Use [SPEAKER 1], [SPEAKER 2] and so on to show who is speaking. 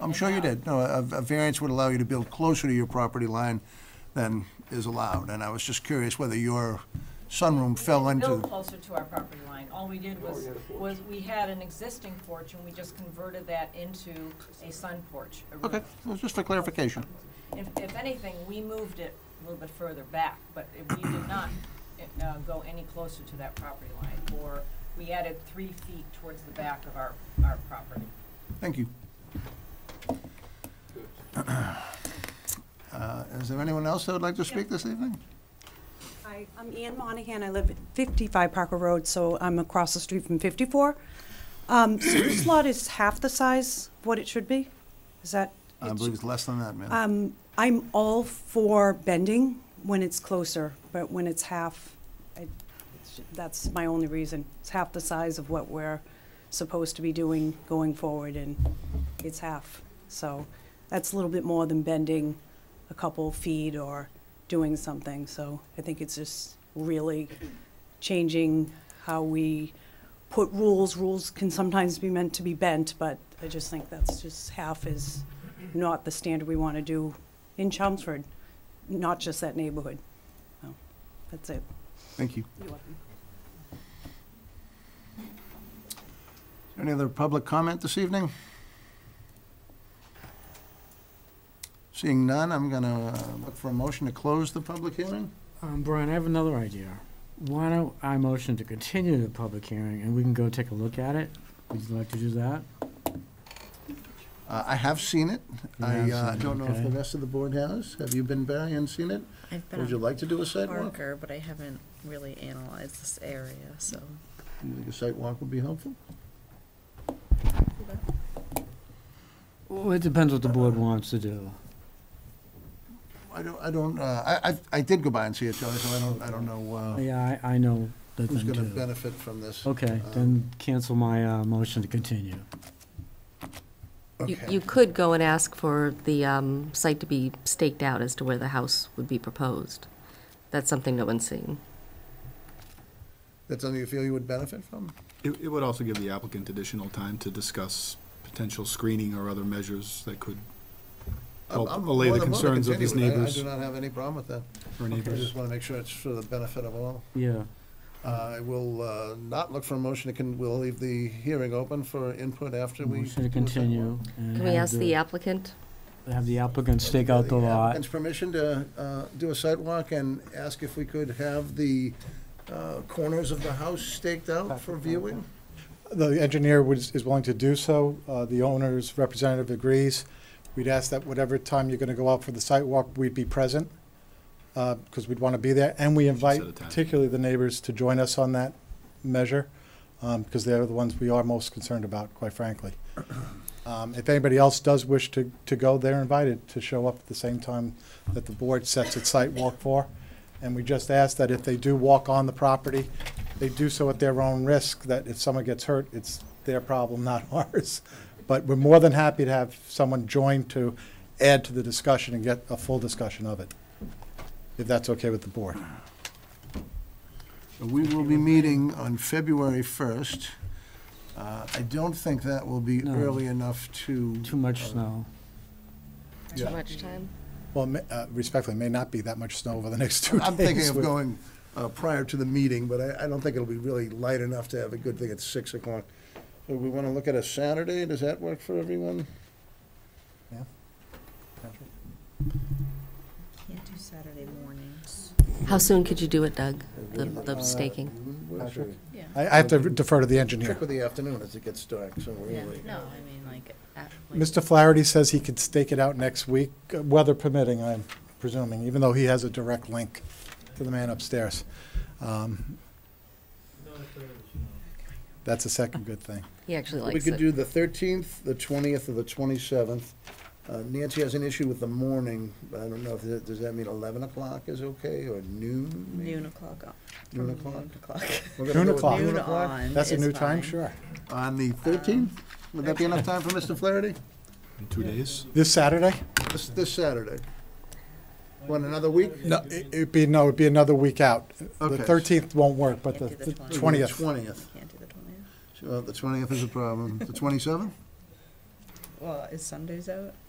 [SPEAKER 1] I'm sure you did. No, a, a variance would allow you to build closer to your property line than is allowed, and I was just curious whether your sunroom fell
[SPEAKER 2] built
[SPEAKER 1] into,
[SPEAKER 2] closer to our property line. All we did was, was we had an existing porch, and we just converted that into a sun porch. a roof.
[SPEAKER 1] okay, it was just for clarification.
[SPEAKER 2] If, if anything, we moved it a little bit further back, but it- we did not uh, go any closer to that property line, or we added three feet towards the back of our, our property.
[SPEAKER 1] Thank you. Uh, Is there anyone else that would like to speak this evening?
[SPEAKER 3] Hi, I'm Ann Monahan. I live at 55 Parker Road, so I'm across the street from 54. Um, So this lot is half the size of what it should be? Is that?
[SPEAKER 1] I believe it's less than that, ma'am.
[SPEAKER 3] Um, I'm all for bending when it's closer, but when it's half, I- it's- that's my only reason. It's half the size of what we're supposed to be doing going forward, and it's half. So that's a little bit more than bending a couple feet or doing something. So I think it's just really changing how we put rules. Rules can sometimes be meant to be bent, but I just think that's just half is not the standard we want to do in Chelmsford, not just that neighborhood. So, That's it.
[SPEAKER 1] Thank you. Any other public comment this evening? Seeing none, I'm going to look for a motion to close the public hearing.
[SPEAKER 4] Um, Brian, I have another idea. Why don't I motion to continue the public hearing and we can go take a look at it? Would you like to do that?
[SPEAKER 1] Uh, I have seen it.
[SPEAKER 4] You
[SPEAKER 1] I
[SPEAKER 4] have
[SPEAKER 1] uh,
[SPEAKER 4] seen it,
[SPEAKER 1] don't know if the
[SPEAKER 4] okay.
[SPEAKER 1] rest of the board has. Have you been, Barry, and seen it?
[SPEAKER 5] I've been
[SPEAKER 1] Would you
[SPEAKER 5] on
[SPEAKER 1] like to do a site walk?
[SPEAKER 5] Parker, but I haven't really analyzed this area, so.
[SPEAKER 1] Do you think a site walk would be helpful?
[SPEAKER 4] Well, it depends what the board wants to do.
[SPEAKER 1] I don't, I don't, uh, I, I- I did go by and see it, Charlie, so I don't, I don't know uh,
[SPEAKER 4] Yeah, I, I know that
[SPEAKER 1] who's
[SPEAKER 4] then
[SPEAKER 1] going to
[SPEAKER 4] too.
[SPEAKER 1] benefit Uh, from this.
[SPEAKER 4] Okay, then cancel my, uh, motion to continue.
[SPEAKER 6] You-
[SPEAKER 1] Okay.
[SPEAKER 6] You could go and ask for the um, site to be staked out as to where the house would be proposed. That's something no one's seen.
[SPEAKER 1] That's something you feel you would benefit from?
[SPEAKER 7] It, it would also give the applicant additional time to discuss potential screening or other measures that could help
[SPEAKER 1] I'm- I'm
[SPEAKER 7] allay
[SPEAKER 1] more
[SPEAKER 7] the
[SPEAKER 1] than willing to
[SPEAKER 7] concerns of
[SPEAKER 1] continue it.
[SPEAKER 7] these
[SPEAKER 1] I-
[SPEAKER 7] neighbors
[SPEAKER 1] I do not have any problem with that.
[SPEAKER 7] or
[SPEAKER 1] I
[SPEAKER 7] neighbors.
[SPEAKER 1] just want to make sure it's for the benefit of all.
[SPEAKER 4] Yeah,
[SPEAKER 1] I will uh, not look for a motion, to con- we'll leave the hearing open for input after we.
[SPEAKER 4] motion
[SPEAKER 1] do
[SPEAKER 4] to
[SPEAKER 1] a site
[SPEAKER 4] continue.
[SPEAKER 1] walk.
[SPEAKER 6] Can we ask the applicant?
[SPEAKER 4] Have the applicant stake out the lot.
[SPEAKER 1] applicant's permission to uh, do a site walk and ask if we could have the uh, corners of the house staked out for viewing?
[SPEAKER 8] The engineer was, is willing to do so. Uh, The owner's representative agrees. We'd ask that whatever time you're going to go out for the site walk, we'd be present, because we'd want to be there. And we
[SPEAKER 7] Set a
[SPEAKER 8] invite
[SPEAKER 7] time.
[SPEAKER 8] particularly the neighbors to join us on that measure, because they're the ones we are most concerned about, quite frankly. Um, If anybody else does wish to, to go, they're invited to show up at the same time that the board sets its site walk for. And we just ask that if they do walk on the property, they do so at their own risk, that if someone gets hurt, it's their problem, not ours. But we're more than happy to have someone join to add to the discussion and get a full discussion of it, if that's okay with the board.
[SPEAKER 1] We will be meeting on February 1st. Uh, I don't think that will be
[SPEAKER 4] No.
[SPEAKER 1] early enough to.
[SPEAKER 4] Too much snow.
[SPEAKER 1] Yeah.
[SPEAKER 6] Too much time?
[SPEAKER 8] Well, ma- uh, respectfully, it may not be that much snow over the next two days.
[SPEAKER 1] I'm thinking of
[SPEAKER 8] with-
[SPEAKER 1] going uh, prior to the meeting, but I, I don't think it'll be really light enough to have a good thing at six o'clock. So we want to look at a Saturday, does that work for everyone?
[SPEAKER 5] Can't do Saturday mornings.
[SPEAKER 6] How soon could you do it, Doug, the the staking?
[SPEAKER 8] Patrick?
[SPEAKER 5] Yeah.
[SPEAKER 8] I I have to defer to the engineer.
[SPEAKER 1] Trick with the afternoon as it gets dark, so we're really.
[SPEAKER 5] No, I mean, like, at, like.
[SPEAKER 8] Mr. Flaherty says he could stake it out next week, uh, weather permitting, I'm presuming, even though he has a direct link to the man upstairs. Um, That's a second good thing.
[SPEAKER 6] He actually
[SPEAKER 1] We
[SPEAKER 6] likes
[SPEAKER 1] could
[SPEAKER 6] it.
[SPEAKER 1] do the thirteenth, the twentieth, or the twenty-seventh. Uh, Nancy has an issue with the morning, but I don't know, if that- does that mean eleven o'clock is okay, or noon? maybe?
[SPEAKER 5] Noon o'clock. on-
[SPEAKER 1] Noon
[SPEAKER 5] from
[SPEAKER 1] o'clock?
[SPEAKER 5] Noon o'clock.
[SPEAKER 1] We're gonna
[SPEAKER 8] Noon
[SPEAKER 1] go with
[SPEAKER 8] o'clock.
[SPEAKER 5] Noon on
[SPEAKER 8] That's a
[SPEAKER 5] is
[SPEAKER 8] new time,
[SPEAKER 5] fine.
[SPEAKER 8] sure.
[SPEAKER 1] On the thirteenth? Would that be enough time for Mr. Flaherty?
[SPEAKER 7] In two days?
[SPEAKER 8] This Saturday?
[SPEAKER 1] This, this Saturday? Want another week?
[SPEAKER 8] No, it- it'd be, no, it'd be another week out. The
[SPEAKER 1] Okay.
[SPEAKER 8] thirteenth won't work, but the
[SPEAKER 5] Can't do the
[SPEAKER 8] th-
[SPEAKER 5] 20th.
[SPEAKER 8] twentieth.
[SPEAKER 1] Twentieth.
[SPEAKER 5] Can't do the twentieth.
[SPEAKER 1] So the twentieth is a problem. The twenty-seventh?
[SPEAKER 5] well, is Sundays out?